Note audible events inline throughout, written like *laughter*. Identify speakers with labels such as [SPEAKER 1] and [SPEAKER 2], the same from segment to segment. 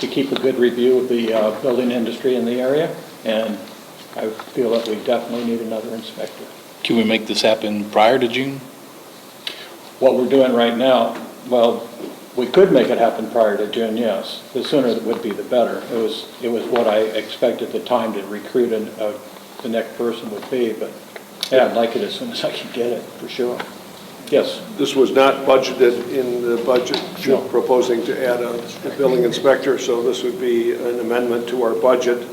[SPEAKER 1] to keep a good review of the uh, building industry in the area, and I feel that we definitely need another inspector.
[SPEAKER 2] Can we make this happen prior to June?
[SPEAKER 1] What we're doing right now, well, we could make it happen prior to June, yes. The sooner it would be, the better. It was, it was what I expected the time to recruit and, uh, the next person would be, but, yeah, I'd like it as soon as I can get it, for sure. Yes,
[SPEAKER 3] This was not budgeted in the budget
[SPEAKER 1] No.
[SPEAKER 3] proposing to add a a building inspector, so this would be an amendment to our budget.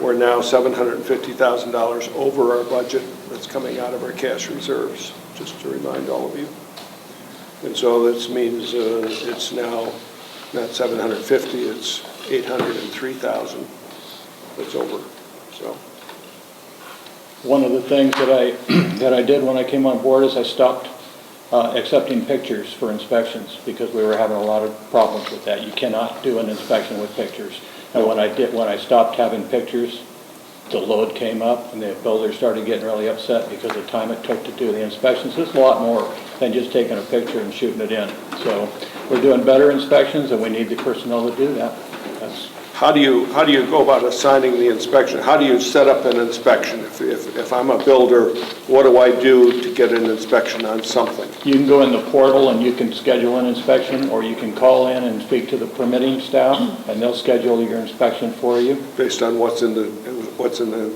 [SPEAKER 3] We're now $750,000 over our budget that's coming out of our cash reserves, just to remind all of you. And so this means uh, it's now not 750, it's 803,000 that's over, so.
[SPEAKER 1] one of the things that I, *clears throat* that I did when I came on board is I stopped uh, accepting pictures for inspections because we were having a lot of problems with that. You cannot do an inspection with pictures. And when I did, when I stopped having pictures, the load came up and the builder started getting really upset because of the time it took to do the inspections. It's a lot more than just taking a picture and shooting it in. So we're doing better inspections and we need the personnel to do that. That's
[SPEAKER 3] How do you, how do you go about assigning the inspection? How do you set up an inspection? If, if, if I'm a builder, what do I do to get an inspection on something?
[SPEAKER 1] You can go in the portal and you can schedule an inspection, or you can call in and speak to the permitting staff, and they'll schedule your inspection for you.
[SPEAKER 3] Based on what's in the, what's in the?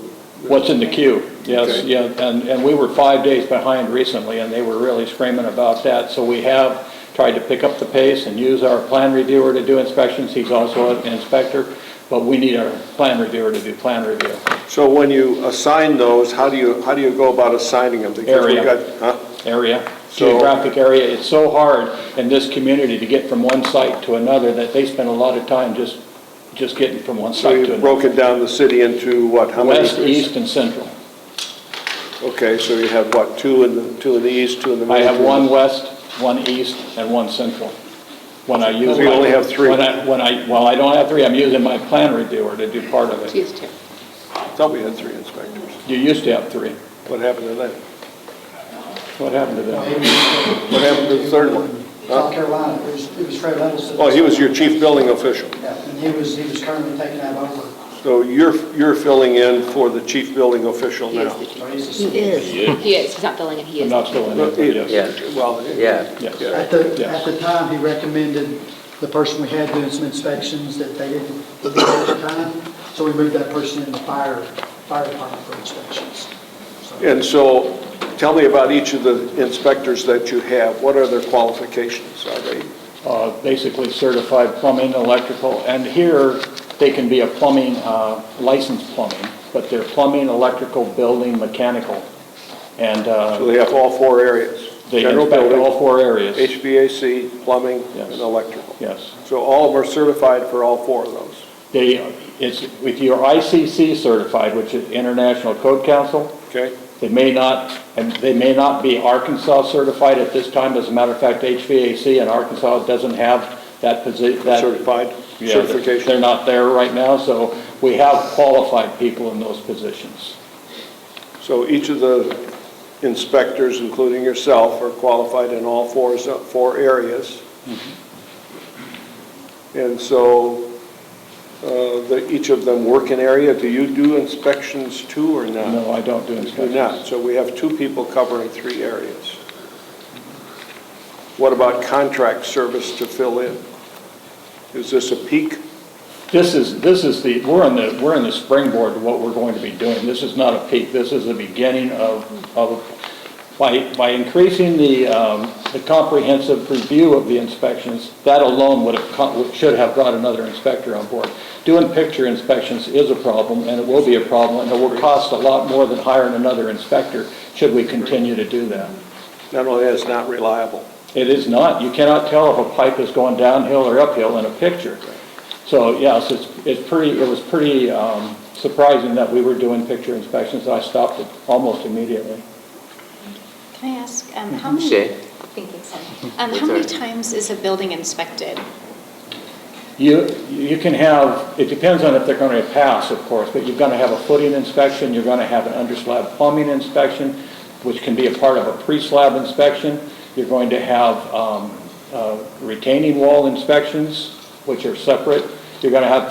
[SPEAKER 1] What's in the queue? Yes,
[SPEAKER 3] Okay.
[SPEAKER 1] yeah, and, and we were five days behind recently, and they were really screaming about that. So we have tried to pick up the pace and use our plan reviewer to do inspections. He's also an inspector, but we need our plan reviewer to do plan review.
[SPEAKER 3] So when you assign those, how do you, how do you go about assigning them? Because we've
[SPEAKER 1] Area.
[SPEAKER 3] got- Huh?
[SPEAKER 1] area,
[SPEAKER 3] So-
[SPEAKER 1] geographic area. It's so hard in this community to get from one site to another that they spend a lot of time just, just getting from one
[SPEAKER 3] So
[SPEAKER 1] site to
[SPEAKER 3] you've
[SPEAKER 1] another.
[SPEAKER 3] broken down the city into what, how many?
[SPEAKER 1] West, east, and central.
[SPEAKER 3] Okay, so you have what, two in the, two in the east, two in the
[SPEAKER 1] I
[SPEAKER 3] middle?
[SPEAKER 1] have
[SPEAKER 3] two in
[SPEAKER 1] one
[SPEAKER 3] the-
[SPEAKER 1] west, one east, and one central. When I use.
[SPEAKER 3] So you
[SPEAKER 1] my-
[SPEAKER 3] only have three.
[SPEAKER 1] When I, when I, well, I don't have three. I'm using my plan reviewer to do part of it.
[SPEAKER 4] Excuse me.
[SPEAKER 3] I Thought we had three inspectors.
[SPEAKER 1] You used to have three.
[SPEAKER 3] What happened to that?
[SPEAKER 1] What happened to them?
[SPEAKER 3] What happened to the third one?
[SPEAKER 5] South Carolina, it was, it was Fred Levinson.
[SPEAKER 3] Oh, he was your chief building official.
[SPEAKER 5] Yeah, and he was, he was currently taking that over,
[SPEAKER 3] So you're, you're filling in for the chief building official
[SPEAKER 4] He is
[SPEAKER 3] now?
[SPEAKER 4] the
[SPEAKER 5] so
[SPEAKER 4] chief.
[SPEAKER 5] he's the.
[SPEAKER 4] He is. He is, he's not filling in, he
[SPEAKER 1] I'm
[SPEAKER 4] is.
[SPEAKER 1] not still in
[SPEAKER 3] Well,
[SPEAKER 1] it, but yes.
[SPEAKER 3] yeah.
[SPEAKER 6] Yeah.
[SPEAKER 1] Yes.
[SPEAKER 5] At the,
[SPEAKER 1] Yes.
[SPEAKER 5] at the time, he recommended the person we had doing some inspections that they didn't do at the time, so we moved that person in the fire, fire department for inspections. So
[SPEAKER 3] And so, tell me about each of the inspectors that you have. What are their qualifications? Are they,
[SPEAKER 1] uh, basically certified plumbing, electrical, and here, they can be a plumbing, uh, licensed plumbing, but they're plumbing, electrical, building, mechanical, and
[SPEAKER 3] so
[SPEAKER 1] uh,
[SPEAKER 3] they have all four areas?
[SPEAKER 1] they
[SPEAKER 3] General
[SPEAKER 1] inspect
[SPEAKER 3] building,
[SPEAKER 1] all four areas.
[SPEAKER 3] HVAC, plumbing, and
[SPEAKER 1] Yes.
[SPEAKER 3] electrical.
[SPEAKER 1] Yes.
[SPEAKER 3] So all of them are certified for all four of those?
[SPEAKER 1] They, it's, if you're ICC certified, which is International Code Council,
[SPEAKER 3] Okay?
[SPEAKER 1] they may not, and they may not be Arkansas certified at this time. As a matter of fact, HVAC in Arkansas doesn't have that position, that
[SPEAKER 3] Certified,
[SPEAKER 1] Yeah, they're- They're
[SPEAKER 3] certification?
[SPEAKER 1] not there right now, so we have qualified people in those positions.
[SPEAKER 3] So each of the inspectors, including yourself, are qualified in all four, zo- four areas. And so, uh, the- each of them work in area. Do you do inspections too or not?
[SPEAKER 1] No, I don't do
[SPEAKER 3] Uh-huh. Do not.
[SPEAKER 1] inspections.
[SPEAKER 3] So we have two people covering three areas. What about contract service to fill in? Is this a peak?
[SPEAKER 1] This is, this is the, we're in the, we're in the springboard to what we're going to be doing. This is not a peak, this is the beginning of, of, by, by increasing the, um, the comprehensive review of the inspections, that alone would have, co- should have brought another inspector on board. Doing picture inspections is a problem, and it will be a problem, and it will cost a lot more than hiring another inspector, should we continue to do that.
[SPEAKER 3] Not only that, it's not reliable.
[SPEAKER 1] It is not, you cannot tell if a pipe is going downhill or uphill in a picture. So, yes, it's, it's pretty, it was pretty um, surprising that we were doing picture inspections, I stopped it almost immediately.
[SPEAKER 7] Can I ask, um, how many?
[SPEAKER 6] Sure.
[SPEAKER 7] Thank you, sorry. Um, How many times is a building inspected?
[SPEAKER 1] You, you can have, it depends on if they're going to pass, of course, but you're going to have a footing inspection, you're going to have an underslab plumbing inspection, which can be a part of a pre-slab inspection, you're going to have um, uh, retaining wall inspections, which are separate, you're gonna have